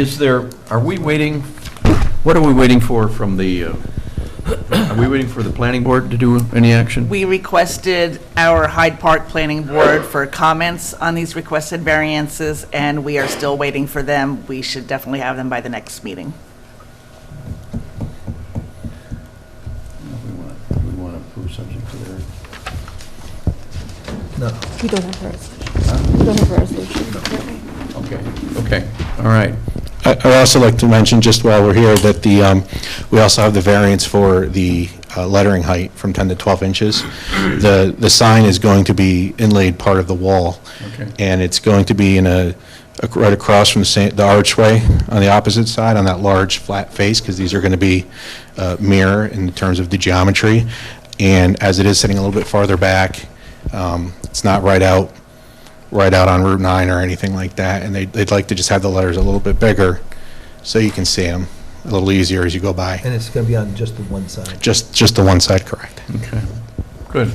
Is there, are we waiting, what are we waiting for from the, uh, are we waiting for the planning board to do any action? We requested our Hyde Park Planning Board for comments on these requested variances, and we are still waiting for them. We should definitely have them by the next meeting. We want to we want to approve subject to their, We don't have a resolution. We don't have a resolution. okay, okay, all right. I- I'd also like to mention, just while we're here, that the, um, we also have the variance for the uh, lettering height from 10 to 12 inches. The, the sign is going to be inlaid part of the wall. Okay. And it's going to be in a, ac- right across from the sa- the archway on the opposite side, on that large flat face, because these are going to be uh, mirror in terms of the geometry. And as it is sitting a little bit farther back, um, it's not right out right out on Route 9 or anything like that, and they'd, they'd like to just have the letters a little bit bigger, so you can see them a little easier as you go by. And it's going to be on just the one side. Just, just the one side, correct. Okay, good.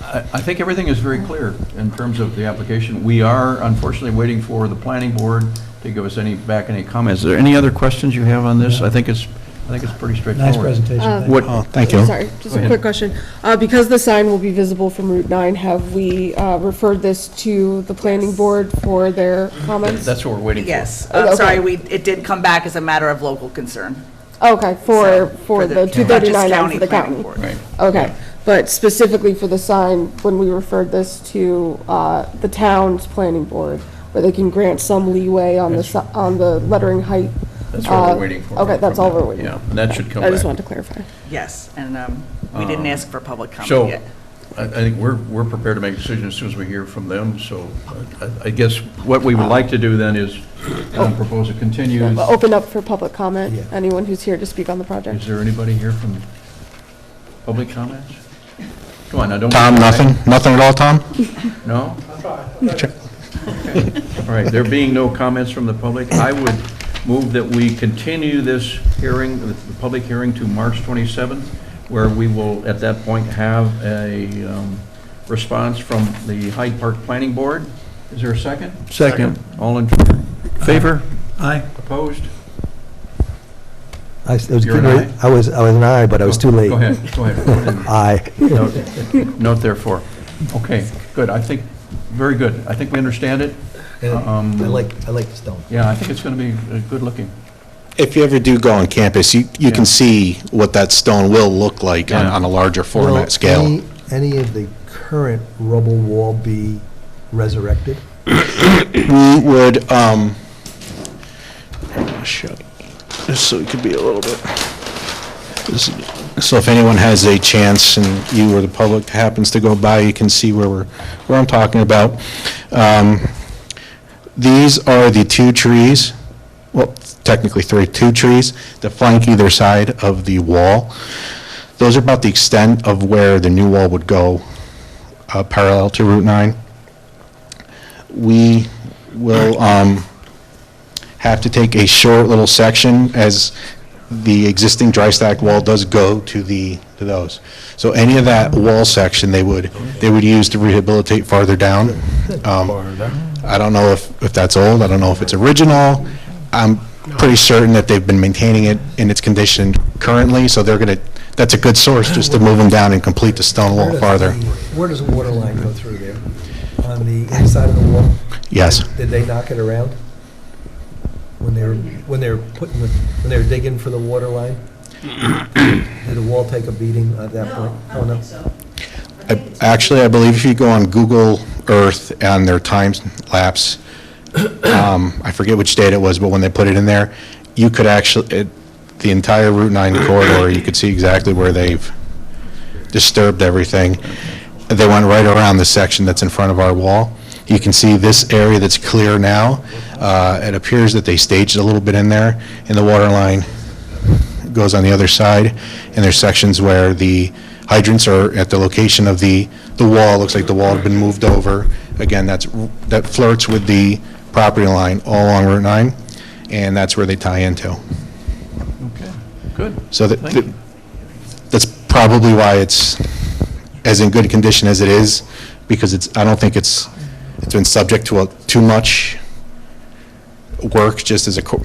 I I think everything is very clear in terms of the application. We are unfortunately waiting for the planning board to give us any, back any comments. Is there any other questions you have on this? I think it's, I think it's pretty straightforward. Nice presentation. Uh, thank you. What- Oh, thank you. Sorry, just Go a ahead. quick question. Uh, Because the sign will be visible from Route 9, have we uh, referred this to the planning board for their comments? That's what we're waiting for. Yes, Okay. I'm sorry, we, it did come back as a matter of local concern. Okay, for, So, for the Dutchess 239 out County for the Planning county. Board. Right. Okay, but specifically for the sign, when we referred this to uh, the town's planning board, where they can grant some leeway on the, si- on the lettering height? That's what uh, we're waiting for. Okay, that's from all them. we're waiting for. Yeah, and that should come back. I just wanted to clarify. Yes, and um, we didn't ask for public comment So, yet. I I think we're, we're prepared to make a decision as soon as we hear from them, so I- I guess what we would like to do then is um, propose a continues. Well, Open up for public comment, Yeah. anyone who's here to speak on the project. Is there anybody here from public comments? Come on, now, don't. Tom, nothing? Nothing at all, Tom? No? Okay. All right, there being no comments from the public, I would move that we continue this hearing, the public hearing to March 27th, where we will, at that point, have a um, response from the Hyde Park Planning Board. Is there a second? Second. All in favor? Aye. Opposed? I s- I was You're an getting ready- I was, I was an aye, but I was too late. Go ahead, go ahead. Aye. Note- Note therefore. Okay, good, I think, very good. I think we understand it. And I Um, like, I like the stone. Yeah, I think it's going to be uh, good looking. If you ever do go on campus, you, you Yeah. can see what that stone will look like on, Yeah. on a larger Will format scale. any- Any of the current rubble wall be resurrected? We would, um, shut, just so it could be a little bit. this- So if anyone has a chance and you or the public happens to go by, you can see where we're, where I'm talking about. Um, These are the two trees, well, technically three, two trees that flank either side of the wall. Those are about the extent of where the new wall would go, uh, parallel to Route 9 we will um, have to take a short little section as the existing dry stack wall does go to the, to those. So any of that wall section, they would, they would use to rehabilitate farther down. Um, I don't know if, if that's old, I don't know if it's original. I'm pretty certain that they've been maintaining it in its condition currently, so they're going to, that's a good source just to move them down and complete the stone Where wall does farther. the- Where does the water line go through there? On the inside of the wall? Yes. Did they knock it around? When they were, when they were putting, the- when they were digging for the water line? Did the wall take a beating at that point? Oh, No, I- Actually, I believe if you go on Google Earth and their time lapse, um, I forget which date it was, but when they put it in there, you could actually, it- the entire Route 9 corridor, you could see exactly where they've disturbed everything. They went right around the section that's in front of our wall. You can see this area that's clear now. Uh, It appears that they staged a little bit in there, and the water line goes on the other side, and there's sections where the hydrants are at the location of the, the wall, looks like the wall had been moved over. Again, that's, that flirts with the property line all along Route 9, and that's where they tie into. Okay, good. So that, Thank you. that's probably why it's as in good condition as it is, because it's, I don't think it's, it's been subject to a- too much work, just as a, co-